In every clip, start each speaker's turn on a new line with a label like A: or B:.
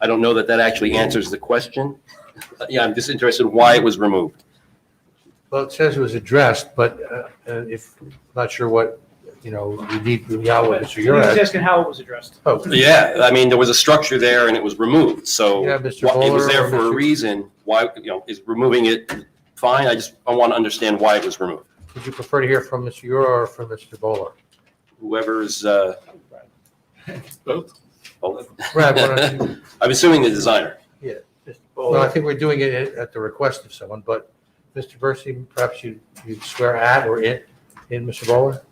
A: I don't know that that actually answers the question. Uh, Yeah, I'm just interested in why it was removed.
B: Well, it says it was addressed, but uh, uh, if, not sure what, you know, you need, Yahweh, Mr.
C: He was
B: Yurek.
C: asking how it was addressed.
B: Oh,
A: Yeah, I mean, there was a structure there and it was removed, so
B: Yeah,
A: why-
B: Mr.
A: it was
B: Bowler
A: there
B: or
A: for a
B: Mr.
A: reason. Why, you know, is removing it fine? I just, I want to understand why it was removed.
B: Would you prefer to hear from Mr. Yurek or from Mr. Bowler?
A: Whoever's, uh,
D: Both?
A: oh,
B: Brad, why don't you?
A: I'm assuming the designer.
B: Mr. Well, I think we're doing it at at the request of someone, but Mr. Bursi, perhaps you, you swear at or in, in Mr. Bowler?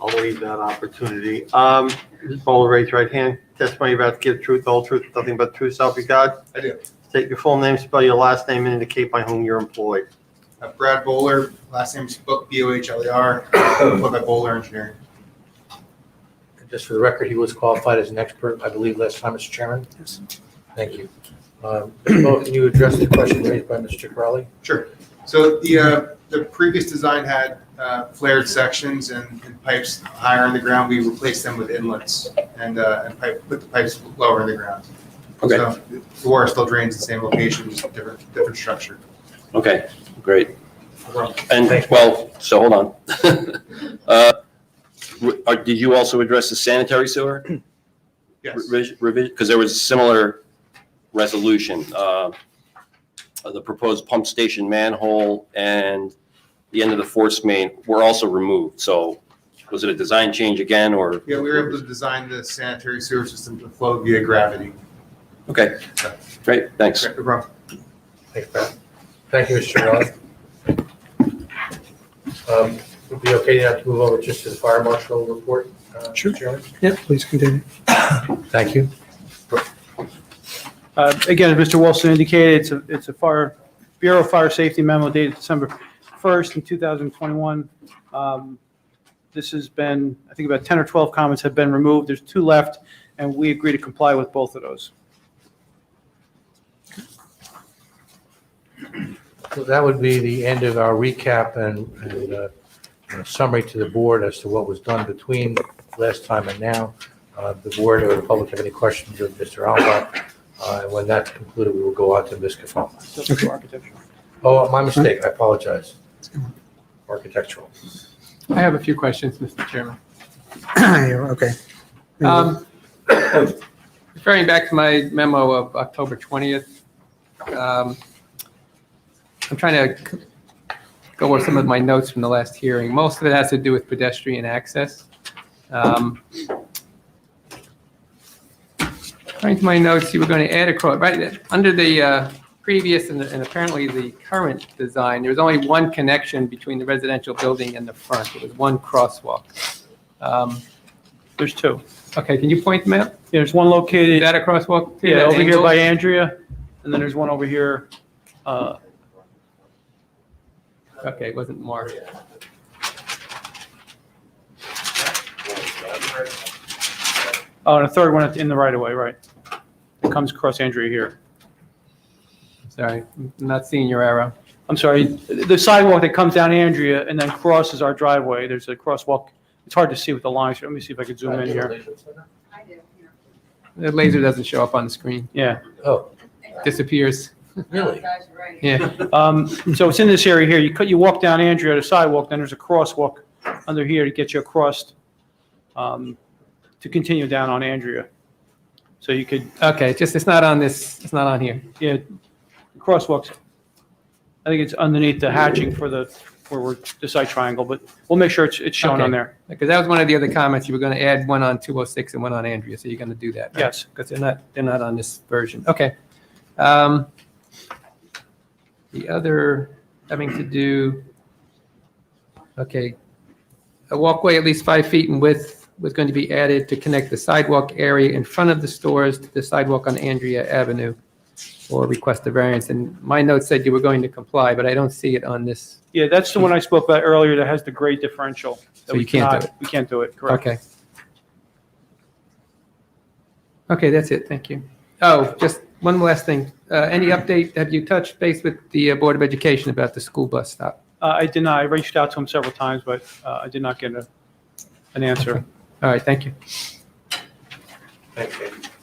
E: I'll leave that opportunity. Um, just hold raise your right hand. Testimony you're about to give truth, the whole truth, nothing but the truth, self you got?
D: I do.
E: State your full name, spell your last name, and indicate by whom you're employed.
F: Uh, Brad Bowler, last name's Book, B O H L E R, employed by Bowler Engineering.
B: Just for the record, he was qualified as an expert, I believe, last time, Mr. Chairman? Yes. Thank you. Um, Mr. Bowler, can you address the question raised by Mr. Crowley?
F: Sure. So the, uh, the previous design had uh, flared sections and and pipes higher in the ground. We replaced them with inlets and, uh, and pipe, put the pipes lower in the ground.
A: Okay.
F: So The water still drains the same location, just different, different structure.
A: Okay, great. And, well, so hold on. Uh, w- are- Did you also address the sanitary sewer?
F: Yes.
A: Revision, because there was a similar resolution, uh, of the proposed pump station manhole and the end of the force main were also removed. So was it a design change again, or?
F: Yeah, we were able to design the sanitary sewer system to flow via gravity.
A: Okay, great, thanks.
F: Correct, wrong.
B: Thanks, Pat. Thank you, Mr. Chairman. Um, Would it be okay now to move over just to the fire marshal report? uh,
G: Sure.
B: Chairman?
G: Yeah, please continue.
B: Thank you.
C: Uh, Again, as Mr. Wilson indicated, it's a, it's a fire, Bureau of Fire Safety memo dated December 1st in 2021. Um, This has been, I think about 10 or 12 comments have been removed. There's two left, and we agree to comply with both of those.
B: So that would be the end of our recap and, and uh, and a summary to the board as to what was done between last time and now. Uh, The board or the public have any questions of Mr. Alba? Uh, and When that's concluded, we will go on to Ms. Kefalma.
C: So it's architecture.
B: Oh, my mistake, I apologize. Architectural.
D: I have a few questions, Mr. Chairman.
G: Yeah, Okay.
D: Um, Referring back to my memo of October 20th, um, I'm trying to c- go over some of my notes from the last hearing. Most of it has to do with pedestrian access. Um, According to my notes, you were going to add across, right, under the uh, previous and and apparently the current design, there was only one connection between the residential building and the front. It was one crosswalk. Um,
C: There's two.
D: Okay, can you point them out?
C: There's one
D: Is
C: located,
D: that a crosswalk? too,
C: yeah,
D: that
C: over here
D: angle?
C: by Andrea, and then there's one over here. uh,
D: Okay, it wasn't marked.
C: Oh, and a third one in the right of way, right. It comes across Andrea here.
D: Sorry, I'm not seeing your arrow.
C: I'm sorry, the sidewalk that comes down Andrea and then crosses our driveway, there's a crosswalk. It's hard to see with the lines. Let me see if I could zoom in here.
H: I do, here.
D: The laser doesn't show up on the screen,
C: Yeah.
B: Oh,
D: disappears.
B: really?
H: Guys, you're right.
D: Yeah,
C: Um, So it's in this area here. You cut, you walk down Andrea to sidewalk, then there's a crosswalk under here to get you across um, to continue down on Andrea. So you could,
D: okay, just, it's not on this, it's not on here.
C: yeah, the crosswalks. I think it's underneath the hatching for the, where we're, the side triangle, but we'll make sure it's, it's shown on
D: Okay.
C: there.
D: Because that was one of the other comments, you were going to add one on 206 and one on Andrea, so you're going to do that.
C: Yes.
D: Because they're not, they're not on this version. Okay. Um, The other, having to do, okay, a walkway at least five feet in width was going to be added to connect the sidewalk area in front of the stores to the sidewalk on Andrea Avenue or request a variance. And my note said you were going to comply, but I don't see it on this.
C: Yeah, that's the one I spoke about earlier that has the grade differential. that
D: So
C: we
D: you can't do
C: cannot- We can't do it, correct.
D: Okay. Okay, that's it. Thank you. Oh, just one last thing. Uh, Any update? Have you touched base with the uh, Board of Education about the school bus stop?
C: Uh, I did not, I reached out to him several times, but uh, I did not get a, an answer.
D: All right, thank you.
B: Thank you.